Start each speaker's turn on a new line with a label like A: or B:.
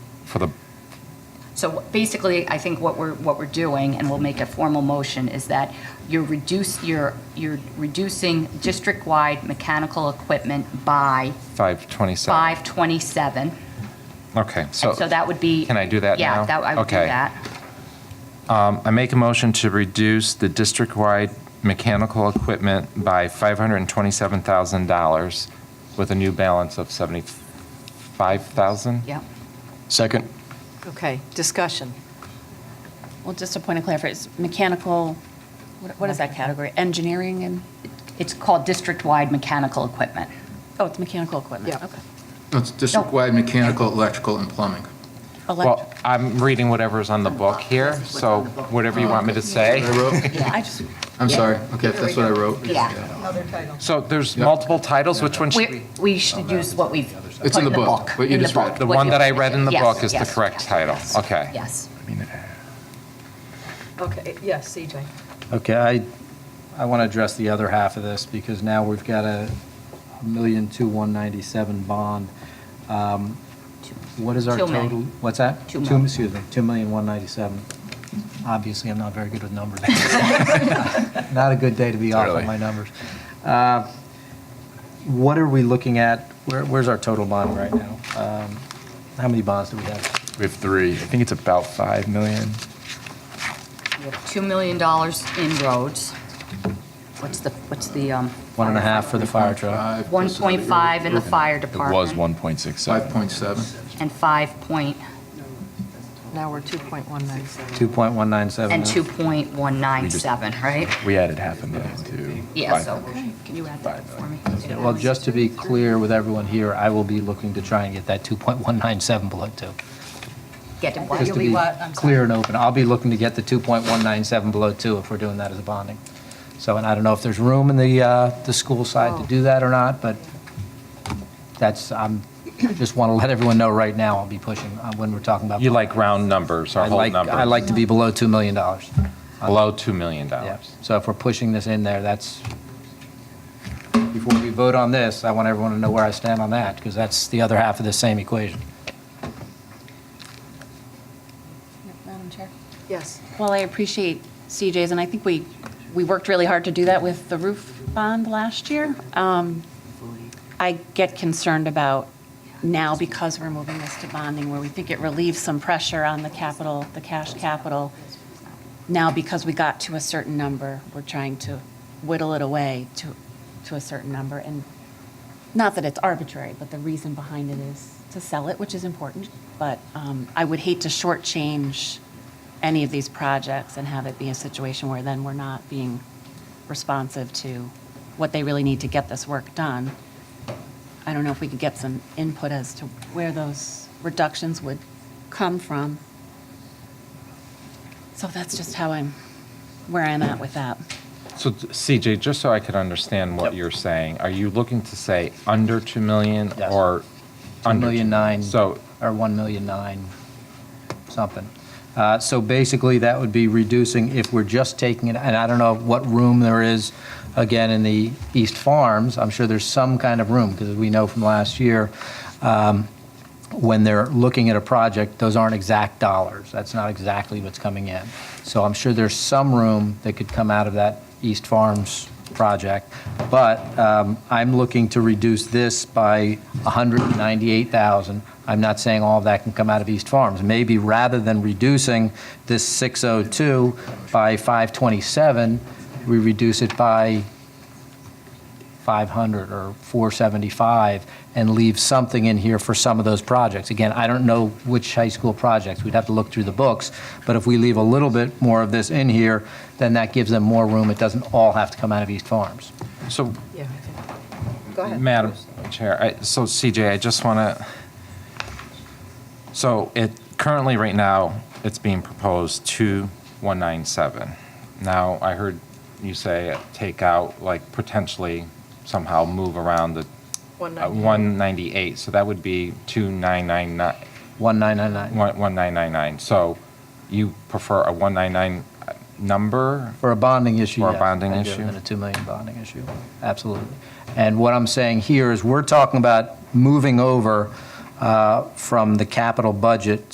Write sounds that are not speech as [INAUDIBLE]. A: for the,
B: So basically, I think what we're, what we're doing, and we'll make a formal motion, is that you're reduce, you're, you're reducing district-wide mechanical equipment by
A: 527?
B: 527.
A: Okay, so
B: And so that would be.
A: can I do that
B: Yeah,
A: now?
B: that, I would do
A: Okay.
B: that.
A: I make a motion to reduce the district-wide mechanical equipment by $527,000 with a new balance of 75,000?
B: Yeah.
C: Second.
D: Okay, discussion.
E: Well, just a point of clarification, mechanical, what what is that category? Engineering and,
B: It's called district-wide mechanical equipment.
E: oh, it's mechanical equipment,
D: Yeah.
E: okay.
F: It's district-wide mechanical, electrical, and plumbing.
E: Electric,
A: Well, I'm reading whatever's on the book here, so whatever you want me
B: Oh,
A: to say.
F: I
E: [LAUGHS]
F: wrote,
E: I just,
F: I'm sorry, okay, if that's what I wrote.
B: Yeah.
A: So there's
F: Yeah.
A: multiple titles, which one should
B: We,
A: we?
B: we should use what we've
F: It's
B: put
F: in
B: in the
F: the book,
B: book.
F: what you
B: in the
F: just read.
B: book,
A: The
B: what
A: one
B: you-
A: that I read in the
B: Yes,
A: book is the
B: yes,
A: correct
B: yes,
A: title,
B: yes,
A: okay.
B: Yes.
D: Okay, yes, CJ.
G: Okay, I, I want to address the other half of this, because now we've got a million two one ninety-seven bond. Um, What is our
B: Two
G: total?
B: million.
G: What's that?
B: Two million.
G: Excuse me, two million one ninety-seven. Obviously, I'm not very good
B: [LAUGHS]
G: with numbers. Not a good day to be off
C: Really?
G: on my numbers. Uh, What are we looking at? Where, where's our total bond right now? Um, How many bonds do we have?
A: We have three. I think it's about 5 million.
B: We have $2 million in roads. What's the, what's the, um?
G: One and a half for the fire truck.
B: 1.5 in the fire department.
F: 5.7.
C: 1.67.
F: 5.7.
B: And 5 point,
D: Now we're 2.197.
G: 2.197.
B: and
G: now.
B: 2.197, right?
C: We added half a million to.
B: Yeah, so, can you add that for me?
G: Yeah, Well, just to be clear with everyone here, I will be looking to try and get that 2.197 below 2.
B: Get it,
G: Just
B: what?
G: to be clear and open, I'll be looking to get the 2.197 below 2 if we're doing that as a bonding. So, and I don't know if there's room in the, uh, the school side to do that or not, but that's, I'm, just want to let everyone know right now, I'll be pushing uh, when we're talking about.
A: You like round numbers or
G: I
A: whole
G: like-
A: numbers?
G: I like to be below $2 million.
A: Below $2 million.
G: Yeah. So if we're pushing this in there, that's, before we vote on this, I want everyone to know where I stand on that, because that's the other half of the same equation.
E: Madam Chair.
D: Yes.
E: Well, I appreciate CJ's, and I think we, we worked really hard to do that with the roof bond last year. Um, I get concerned about now, because we're moving this to bonding, where we think it relieves some pressure on the capital, the cash capital. Now, because we got to a certain number, we're trying to whittle it away to, to a certain number. And not that it's arbitrary, but the reason behind it is to sell it, which is important. But um, I would hate to shortchange any of these projects and have it be a situation where then we're not being responsive to what they really need to get this work done. I don't know if we could get some input as to where those reductions would come from. So that's just how I'm, where I'm at with that.
A: So CJ, just so I could understand what you're saying, are you looking to say under 2 million
G: Yes.
A: or under? 2
G: million nine.
A: So,
G: Or 1 million nine, something. Uh, So basically, that would be reducing, if we're just taking it, and I don't know what room there is, again, in the East Farms, I'm sure there's some kind of room, because we know from last year, um, when they're looking at a project, those aren't exact dollars. That's not exactly what's coming in. So I'm sure there's some room that could come out of that East Farms project. But um, I'm looking to reduce this by 198,000. I'm not saying all of that can come out of East Farms. Maybe rather than reducing this 602 by 527, we reduce it by 500 or 475 and leave something in here for some of those projects. Again, I don't know which high school projects. We'd have to look through the books. But if we leave a little bit more of this in here, then that gives them more room. It doesn't all have to come out of East Farms.
A: so
D: Yeah. Go ahead.
A: Madam Chair, I- so CJ, I just want to, so it, currently, right now, it's being proposed 2197. Now, I heard you say take out, like, potentially somehow move around the uh, 198, so that would be 2999,
G: 1999
A: one- 1999. So you prefer a 199 number?
G: for a bonding issue.
A: For a
G: yes,
A: bonding
G: I do,
A: issue?
G: And a 2 million bonding issue. Absolutely. And what I'm saying here is we're talking about moving over uh, from the capital budget